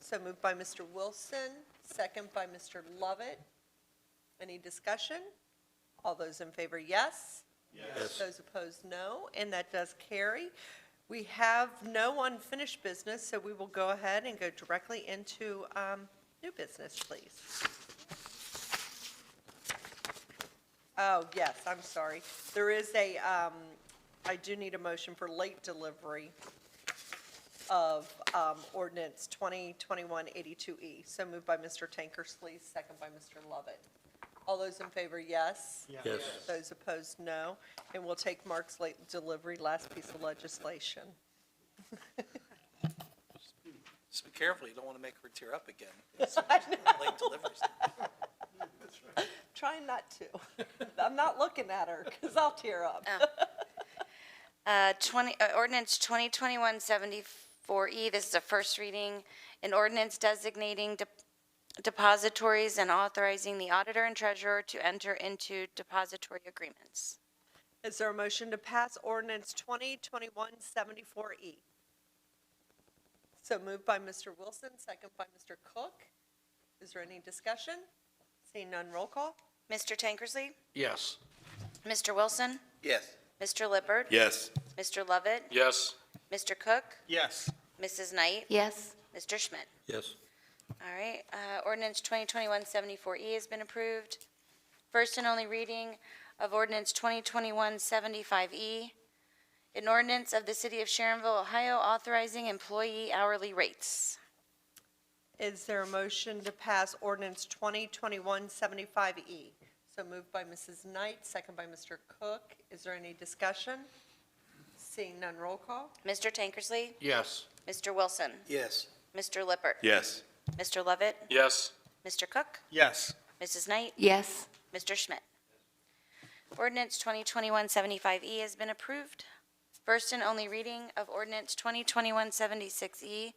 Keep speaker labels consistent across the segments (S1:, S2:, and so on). S1: So moved by Mr. Wilson, second by Mr. Lovett. Any discussion? All those in favor, yes? Yes. Those opposed, no, and that does carry. We have no unfinished business, so we will go ahead and go directly into um, new business, please. Oh, yes, I'm sorry. There is a, um, I do need a motion for late delivery of, um, ordinance 2021-82E. E. So moved by Mr. Tankersley, second by Mr. Lovett. All those in favor, yes?
S2: Yes.
S1: Those opposed, no. And we'll take Mark's late delivery, last piece of legislation.
S3: Just be careful, you don't want to make her tear up again. Late deliveries.
S1: Trying not to. I'm not looking at her, because I'll tear up.
S4: Uh, 20, uh, ordinance 2021-74E, E, this is a first reading, an ordinance designating de- depositories and authorizing the auditor and treasurer to enter into depository agreements.
S1: Is there a motion to pass ordinance 2021-74E? E? So moved by Mr. Wilson, second by Mr. Cook. Is there any discussion? Seeing none, roll call?
S4: Mr. Tankersley?
S2: Yes.
S4: Mr. Wilson?
S3: Yes.
S4: Mr. Lippert?
S2: Yes.
S4: Mr. Lovett?
S2: Yes.
S4: Mr. Cook?
S3: Yes.
S4: Mrs. Knight?
S5: Yes.
S4: Mr. Schmidt?
S2: Yes.
S4: All right, uh, ordinance 2021-74E E has been approved. First and only reading of ordinance 2021-75E, E, an ordinance of the City of Sharonville, Ohio authorizing employee hourly rates.
S1: Is there a motion to pass ordinance 2021-75E? So moved by Mrs. Knight, second by Mr. Cook. Is there any discussion? Seeing none, roll call?
S4: Mr. Tankersley?
S2: Yes.
S4: Mr. Wilson?
S3: Yes.
S4: Mr. Lippert?
S2: Yes.
S4: Mr. Lovett?
S2: Yes.
S4: Mr. Cook?
S3: Yes.
S4: Mrs. Knight?
S5: Yes.
S4: Mr. Schmidt. Ordinance 2021-75E E has been approved. First and only reading of ordinance 2021-76E, E.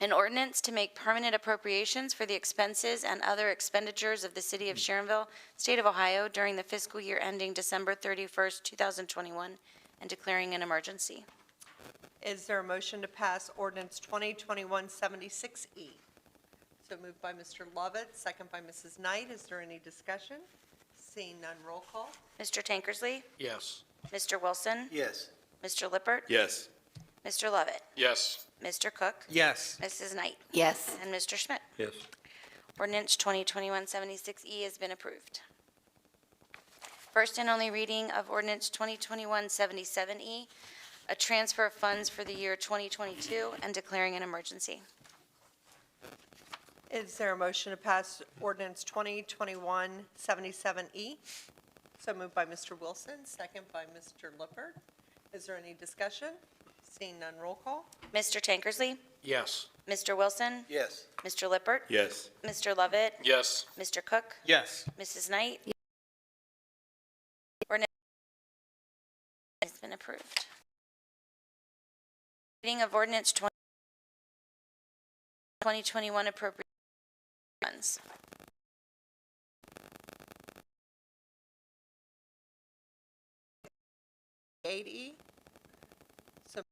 S4: an ordinance to make permanent appropriations for the expenses and other expenditures of the City of Sharonville, State of Ohio during the fiscal year ending December 31st, 2021, and declaring an emergency.
S1: Is there a motion to pass ordinance 2021-76E? E? So moved by Mr. Lovett, second by Mrs. Knight. Is there any discussion? Seeing none, roll call.
S4: Mr. Tankersley?
S2: Yes.
S4: Mr. Wilson?
S3: Yes.
S4: Mr. Lippert?
S2: Yes.
S4: Mr. Lovett?
S2: Yes.
S4: Mr. Cook?
S3: Yes.
S4: Mrs. Knight?
S5: Yes.
S4: And Mr. Schmidt.
S2: Yes.
S4: Ordinance 2021-76E E has been approved. First and only reading of ordinance 2021-77E, E, a transfer of funds for the year 2022 and declaring an emergency.
S1: Is there a motion to pass ordinance 2021-77E? So moved by Mr. Wilson, second by Mr. Lippert. Is there any discussion? Seeing none, roll call.
S4: Mr. Tankersley,
S2: Yes.
S4: Mr. Wilson,
S3: Yes.
S4: Mr. Lippert,
S2: Yes.
S4: Mr. Lovett,
S2: Yes.
S4: Mr. Cook,
S3: Yes.
S4: Mrs. Knight. Ordinance has been approved. Reading of ordinance 20- 2021 appropriate funds.
S1: Eight E. So.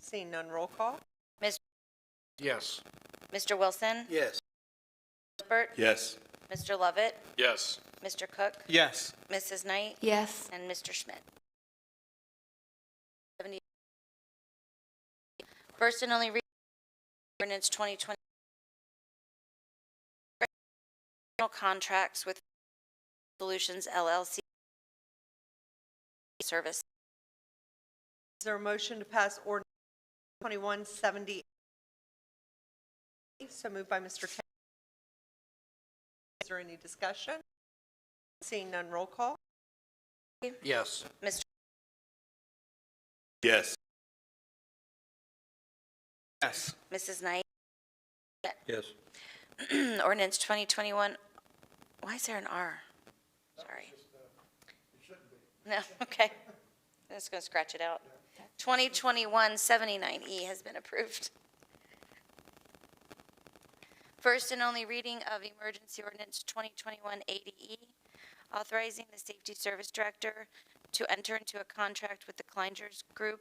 S1: Seeing none, roll call.
S2: Yes.
S4: Mr. Wilson?
S3: Yes.
S4: Lippert?
S2: Yes.
S4: Mr. Lovett?
S2: Yes.
S4: Mr. Cook?
S3: Yes.
S4: Mrs. Knight?
S5: Yes.
S4: And Mr. Schmidt. 70 First and only reading of ordinance 2020 contracts with Solutions LLC service.
S1: Is there a motion to pass ordinance 2170? So moved by Mr. Tanner. Is there any discussion? Seeing none, roll call.
S2: Yes.
S4: Mr.
S2: Yes.
S3: Yes.
S4: Mrs. Knight?
S2: Yes.
S4: Ordinance 2021, why is there an R? Sorry. No, okay. I'm just going to scratch it out. 2021-79E E has been approved. First and only reading of emergency ordinance 2021-80E, authorizing the Safety Service Director to enter into a contract with the Kleinger's Group